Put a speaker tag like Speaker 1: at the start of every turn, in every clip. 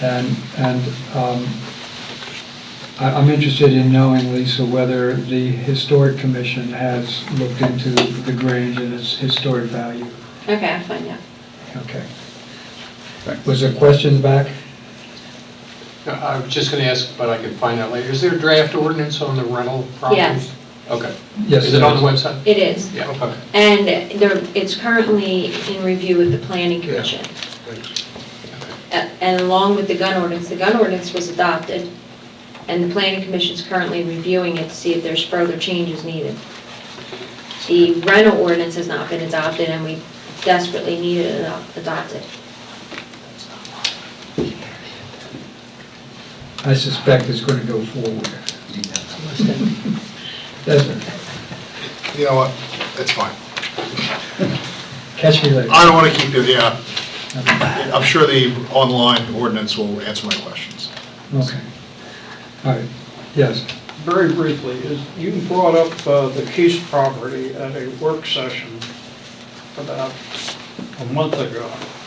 Speaker 1: And, and um, I- I'm interested in knowing, Lisa, whether the Historic Commission has looked into the Grange and its historic value.
Speaker 2: Okay, I'm fine, yeah.
Speaker 1: Okay. Was there a question back?
Speaker 3: No, I was just going to ask, but I can find out later. Is there a draft ordinance on the rental properties?
Speaker 2: Yes.
Speaker 3: Okay.
Speaker 1: Yes,
Speaker 3: Is it
Speaker 1: there
Speaker 3: on
Speaker 1: is.
Speaker 3: the website?
Speaker 2: It is.
Speaker 3: Yeah, okay.
Speaker 2: And there, it's currently in review with the planning commission. A- And along with the gun ordinance, the gun ordinance was adopted, and the planning commission's currently reviewing it to see if there's further changes needed. The rental ordinance has not been adopted, and we desperately need it ado- adopted.
Speaker 1: I suspect it's going to go forward. Doesn't it?
Speaker 4: You know what, that's fine.
Speaker 1: Catch me later.
Speaker 4: I don't want to keep you, yeah. I'm sure the online ordinance will answer my questions.
Speaker 1: Okay. All right, yes.
Speaker 5: Very briefly, is, you brought up uh, the Keys property at a work session about a month ago.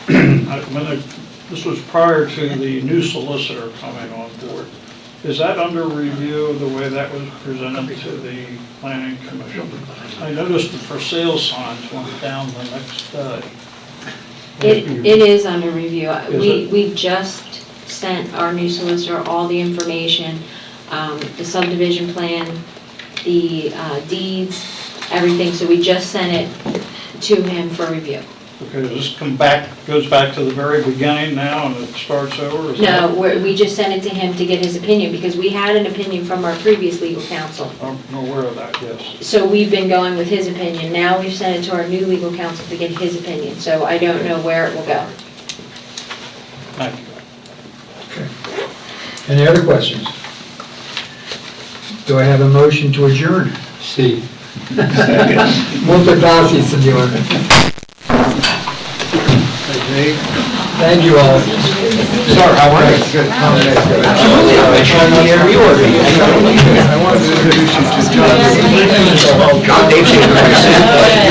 Speaker 5: I- when it- This was prior to the new solicitor coming on board. Is that under review, the way that was presented to the planning commission? I noticed the for sale signs went down the next day.
Speaker 2: It, it is under review. We,
Speaker 5: it?
Speaker 2: we just sent our new solicitor all the information, um, the subdivision plan, the uh, deeds, everything, so we just sent it to him for review.
Speaker 5: Okay, does this come back, goes back to the very beginning now and it starts over? Is that-
Speaker 2: No, we're- we just sent it to him to get his opinion, because we had an opinion from our previous legal counsel.
Speaker 5: I'm aware of that, yes.
Speaker 2: So we've been going with his opinion. Now we've sent it to our new legal counsel to get his opinion, so I don't know where it will go.
Speaker 5: Thank you.
Speaker 1: Okay. Any other questions? Do I have a motion to adjourn?
Speaker 3: See.
Speaker 1: Muchas gracias, señor. Thank you all. Sorry, how are you? Good.
Speaker 4: I wanted to introduce you to John. John Dave